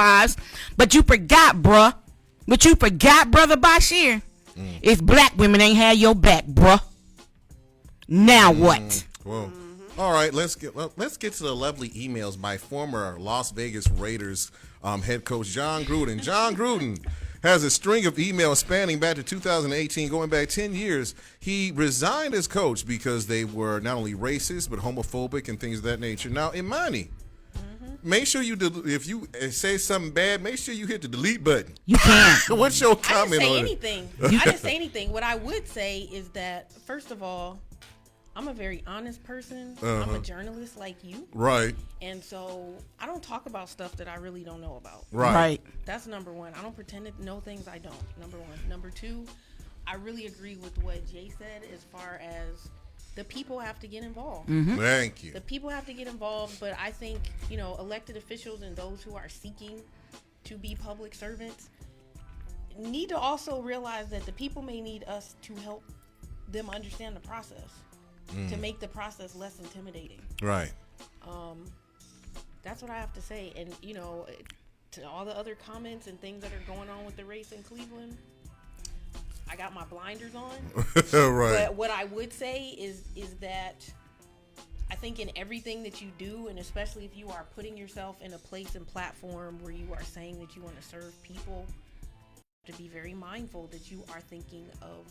lives. But you forgot, bruh. But you forgot, brother Bashir. Mm. If black women ain't had your back, bruh. Now Mm. what? Whoa. Mm-hmm. All right, let's get well, let's get to the lovely emails by former Las Vegas Raiders um, head coach John Gruden. John Gruden has a string of emails spanning back to 2018, going back 10 years. He resigned as coach because they were not only racist but homophobic and things of that nature. Now, Imani, Mm-hmm. make sure you del- if you uh, say something bad, make sure you hit the delete button. You can't. What's your I didn't comment say on it? anything. I didn't say anything. What I would say is that first of all, I'm a very honest person. I'm Uh-huh. a journalist like you, Right, and so I don't talk about stuff that I really don't know about. right, right. That's number one. I don't pretend to know things I don't. Number one. Number two, I really agree with what Jay said as far as the people have to get involved. Thank you. The people have to get involved, but I think, you know, elected officials and those who are seeking to be public servants need to also realize that the people may need us to help them understand the process to make the process less intimidating. Um, Right. That's what I have to say. And, you know, to all the other comments and things that are going on with the race in Cleveland, I got my blinders on. right. But what I would say is is that I think in everything that you do, and especially if you are putting yourself in a place and platform where you are saying that you want to serve people, to be very mindful that you are thinking of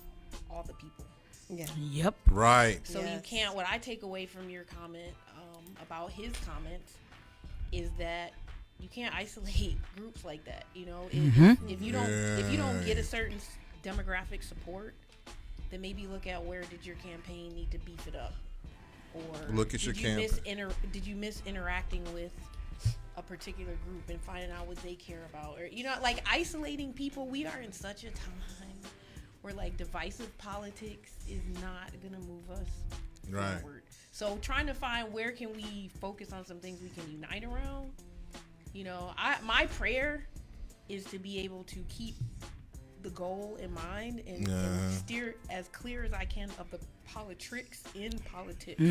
all the people. Yeah. Yep. Right. So you Yes. can't. What I take away from your comment um, about his comments is that you can't isolate groups like that. You know, if, if you don't if you don't get a certain s- demographic support, then maybe look at where did your campaign need to beef it up, or Look at did your you miss campaign. inter- Did you miss interacting with? A particular group and finding out what they care about, or you know, like isolating people. We are in such a time where like divisive politics is not gonna move us Right. forward. So trying to find where can we focus on some things we can unite around. You know, I my prayer is to be able to keep the goal in mind and, and Yeah. steer as clear as I can of the politics in politics.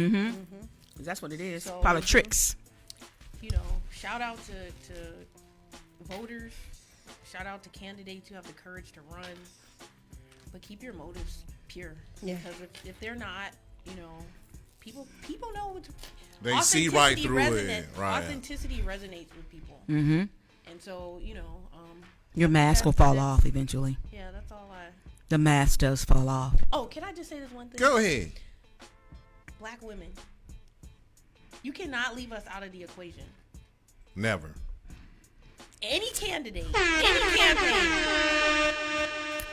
That's what it is. So- Politics. You know, shout out to, to voters. Shout out to candidates who have the courage to run. But keep your motives pure. Yeah. Because if, if they're not, you know, people people know what They see right through it. resonate- Right. Authenticity resonates with people. Mm-hmm. And so, you know, um, Your mask will That's- fall that's- off eventually. yeah, that's all I. The mask does fall off. Oh, can I just say this one thing? Go ahead. Black women, you cannot leave us out of the equation. Never. Any candidate, any campaign.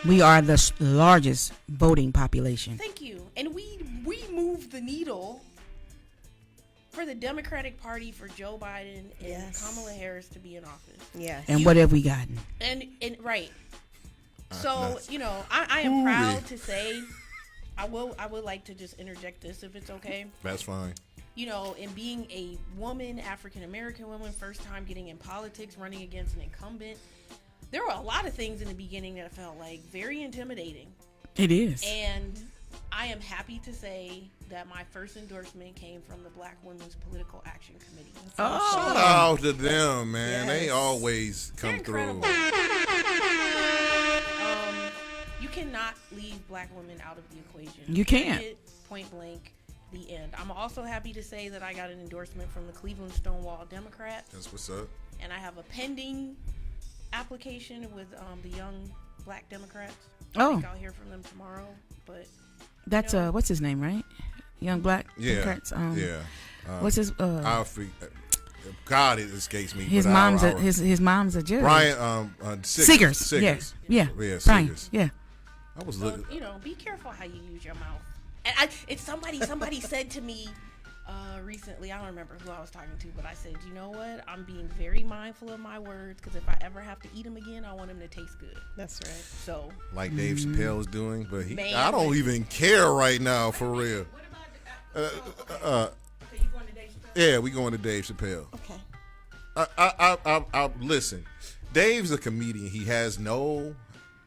We are the s- largest voting population. Thank you. And we we move the needle for the Democratic Party for Joe Biden and Yes. Kamala Harris to be in office. Yes. And what have we gotten? And and right. So that's- you know, I, I am Ooh-wee. proud to say, I will I would like to just interject this if it's okay. That's fine. You know, in being a woman, African American woman, first time getting in politics, running against an incumbent, there were a lot of things in the beginning that felt like very intimidating. It is. And Mm-hmm. I am happy to say that my first endorsement came from the Black Women's Political Action Committee. Oh. Shout out to them, man. They always come through. incredible. Um, you cannot leave black women out of the equation. You can't. Period, Point blank, the end. I'm also happy to say that I got an endorsement from the Cleveland Stonewall Democrat, That's what's up. and I have a pending application with um, the Young Black Democrats. I Oh, think I'll hear from them tomorrow, but that's uh, what's his name, right? Young black. Yeah. Democrats, um, yeah. Um, What's his? Uh, I freak. God, it escapes me. his but mom's. I, a, his his mom's a judge. Brian um uh, Siggers. Siggers. Yeah. Yeah. Yeah. Brian. Siggers. Yeah. Mm-hmm. I was So, looking. you know, be careful how you use your mouth. And I, it's somebody. Somebody said to me uh, recently. I don't remember who I was talking to, but I said, you know what? I'm being very mindful of my words because if I ever have to eat them again, I want them to taste good. That's right. So Like Dave Chappelle's doing, but he, Man. I don't even care right now for real. Uh, uh, yeah, we going to Dave Chappelle. Okay. I, I, I, I, I listen. Dave's a comedian. He has no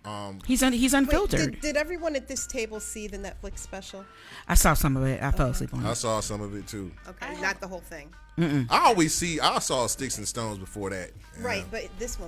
Um, He's un- he's Wait, unfiltered. did, did everyone at this table see the Netflix special? I saw some of it. I fell asleep on I it. saw some of it too. Okay, not the whole thing. I always see I saw sticks and stones before that. Right, but this one.